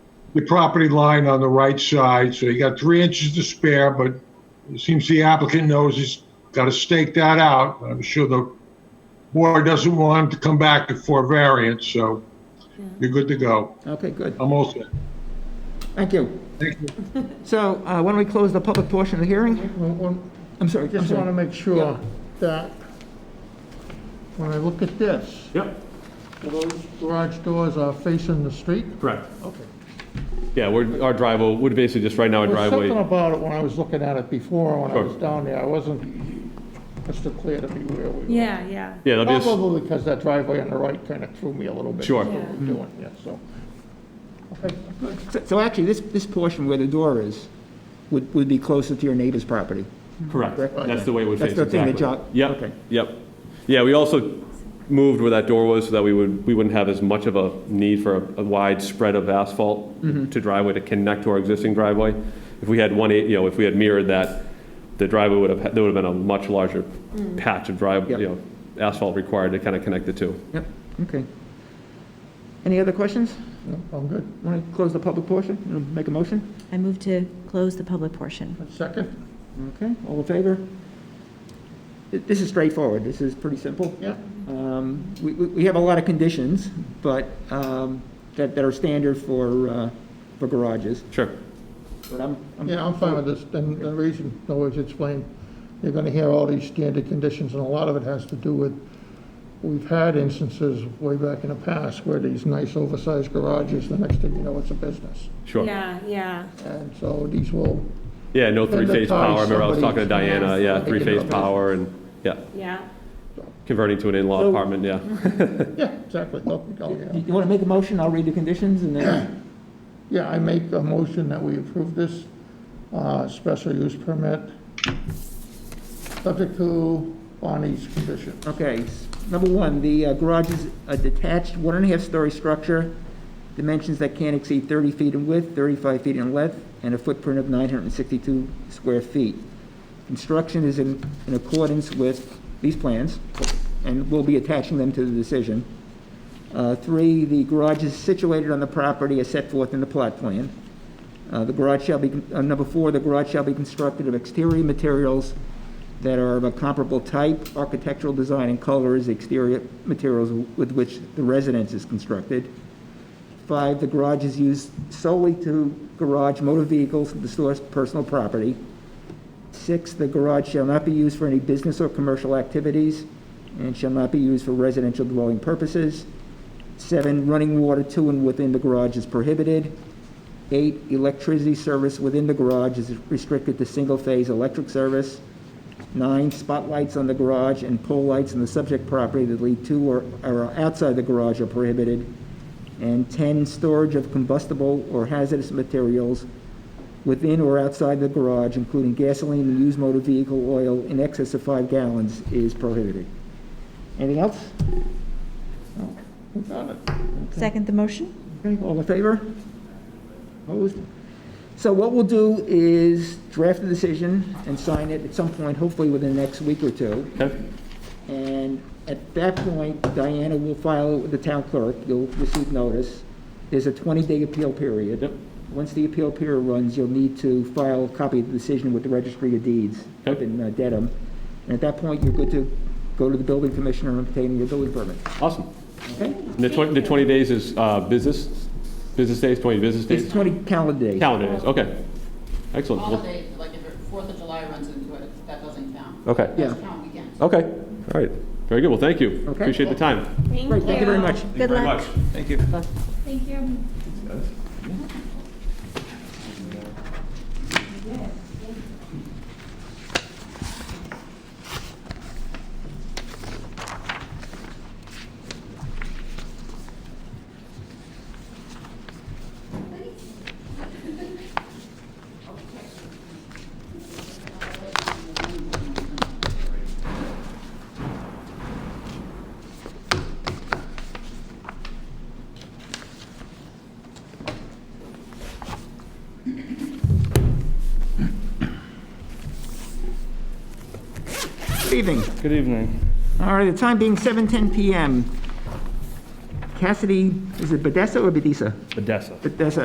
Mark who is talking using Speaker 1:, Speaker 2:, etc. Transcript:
Speaker 1: the property line on the right side, so you got three inches to spare, but it seems the applicant knows he's got to stake that out. I'm sure the board doesn't want him to come back for a variance, so you're good to go.
Speaker 2: Okay, good.
Speaker 1: I'm all set.
Speaker 2: Thank you.
Speaker 1: Thank you.
Speaker 2: So uh, why don't we close the public portion of the hearing?
Speaker 3: Well, one-
Speaker 2: I'm sorry, I'm
Speaker 3: Just want to
Speaker 2: sorry.
Speaker 3: make sure that when I look at this,
Speaker 4: Yep,
Speaker 3: those garage doors are facing the street?
Speaker 4: correct.
Speaker 3: Okay.
Speaker 4: Yeah, we're, our driveway, would basically just right now a
Speaker 3: There was something
Speaker 4: driveway.
Speaker 3: about it when I was looking at it before, when I
Speaker 4: Sure.
Speaker 3: was down there. I wasn't crystal clear to me where we were.
Speaker 5: Yeah, yeah.
Speaker 4: Yeah, that'll be, a s-
Speaker 3: Probably because that driveway on the right kind of threw me a little bit.
Speaker 4: Sure.
Speaker 3: What we're doing, yeah, so. Okay.
Speaker 2: So- So actually, this, this portion where the door is would, would be closer to your neighbor's property.
Speaker 4: correct. That's the way it would face,
Speaker 2: That's the thing
Speaker 4: exactly.
Speaker 2: that y'all- okay.
Speaker 4: Yep, yep. Yeah, we also moved where that door was so that we would, we wouldn't have as much of a need for a a wide spread of asphalt
Speaker 2: Mm-hmm.
Speaker 4: to driveway to connect to our existing driveway. If we had one, eight- you know, if we had mirrored that, the driveway would have, there would have been a much larger patch of drive,
Speaker 2: Mm. Yep.
Speaker 4: you know, asphalt required to kind of connect the two.
Speaker 2: Yep, okay. Any other questions?
Speaker 3: No, I'm good.
Speaker 2: Want to close the public portion? You wanna Make a motion?
Speaker 6: I move to close the public portion.
Speaker 3: Second?
Speaker 2: Okay, all in favor? Th- This is straightforward, this is pretty simple.
Speaker 3: Yeah.
Speaker 2: Um, We, we we have a lot of conditions, but um, that, that are standard for, uh, for garages.
Speaker 4: Sure.
Speaker 2: But I'm, I'm-
Speaker 3: Yeah, I'm fine with this, and the reason, in other words, explained, you're gonna hear all these standard conditions, and a lot of it has to do with, we've had instances way back in the past where these nice oversized garages, the next thing you know, it's a business.
Speaker 4: Sure.
Speaker 5: Yeah, yeah.
Speaker 3: And so these will,
Speaker 4: Yeah, no
Speaker 3: the
Speaker 4: three-phase
Speaker 3: ties,
Speaker 4: power. I remember I was talking to
Speaker 3: somebody-
Speaker 4: Diana,
Speaker 5: Yes.
Speaker 4: yeah,
Speaker 3: They can
Speaker 4: three-phase
Speaker 3: do it.
Speaker 4: power and, yeah,
Speaker 5: Yeah.
Speaker 4: converting to an in-law
Speaker 2: So-
Speaker 4: apartment, yeah.
Speaker 3: yeah, exactly, look, oh, yeah.
Speaker 2: You want to make a motion, I'll read the conditions and then,
Speaker 3: Yeah, I make a motion that we approve this, uh, special use permit, subject to Bonnie's condition.
Speaker 2: okay. s- Number one, the uh, garage is a detached one and a half story structure, dimensions that can't exceed 30 feet in width, 35 feet in length, and a footprint of 962 square feet. Construction is in, in accordance with these plans, and we'll be attaching them to the decision. Uh, Three, the garage is situated on the property as set forth in the plot plan. Uh, The garage shall be, uh, number four, the garage shall be constructed of exterior materials that are of a comparable type, architectural design, and color as the exterior materials with which the residence is constructed. Five, the garage is used solely to garage motor vehicles and to store personal property. Six, the garage shall not be used for any business or commercial activities and shall not be used for residential dwelling purposes. Seven, running water to and within the garage is prohibited. Eight, electricity service within the garage is restricted to single-phase electric service. Nine, spotlights on the garage and pole lights on the subject property that lead to or are outside the garage are prohibited. And 10, storage of combustible or hazardous materials within or outside the garage, including gasoline and used motor vehicle oil in excess of five gallons, is prohibited. Anything else?
Speaker 6: Second the motion?
Speaker 2: Okay, all in favor? Opposed? So what we'll do is draft the decision and sign it at some point, hopefully within the next week or two.
Speaker 4: Okay.
Speaker 2: And at that point, Diana will file it with the town clerk, you'll receive notice. There's a 20-day appeal period.
Speaker 4: Yep.
Speaker 2: Once the appeal period runs, you'll need to file a copy of the decision with the Registry of Deeds up
Speaker 4: Okay.
Speaker 2: in uh, Dedham. And at that point, you're good to go to the building commissioner and obtain your building permit,
Speaker 4: Awesome.
Speaker 2: okay?
Speaker 4: The 20, the 20 days is uh, business, business days, 20 business
Speaker 2: It's
Speaker 4: days?
Speaker 2: 20 calendar days.
Speaker 4: Calendar days, okay. Excellent. Well,
Speaker 7: Holidays, like if Fourth of July runs into it, that doesn't count.
Speaker 4: Okay.
Speaker 2: Yeah.
Speaker 7: Doesn't count weekends.
Speaker 4: Okay, all right. Very good, well, thank you.
Speaker 2: Okay.
Speaker 4: Appreciate the time.
Speaker 5: Thank you.
Speaker 2: Great, thank you very much.
Speaker 6: Good luck.
Speaker 4: Thank you.
Speaker 5: Thank you.
Speaker 2: Good evening.
Speaker 8: Good evening.
Speaker 2: All right, the time being 7:10 PM. Cassidy, is it Bedessa or Bedisa?
Speaker 8: Odessa.
Speaker 2: Bedessa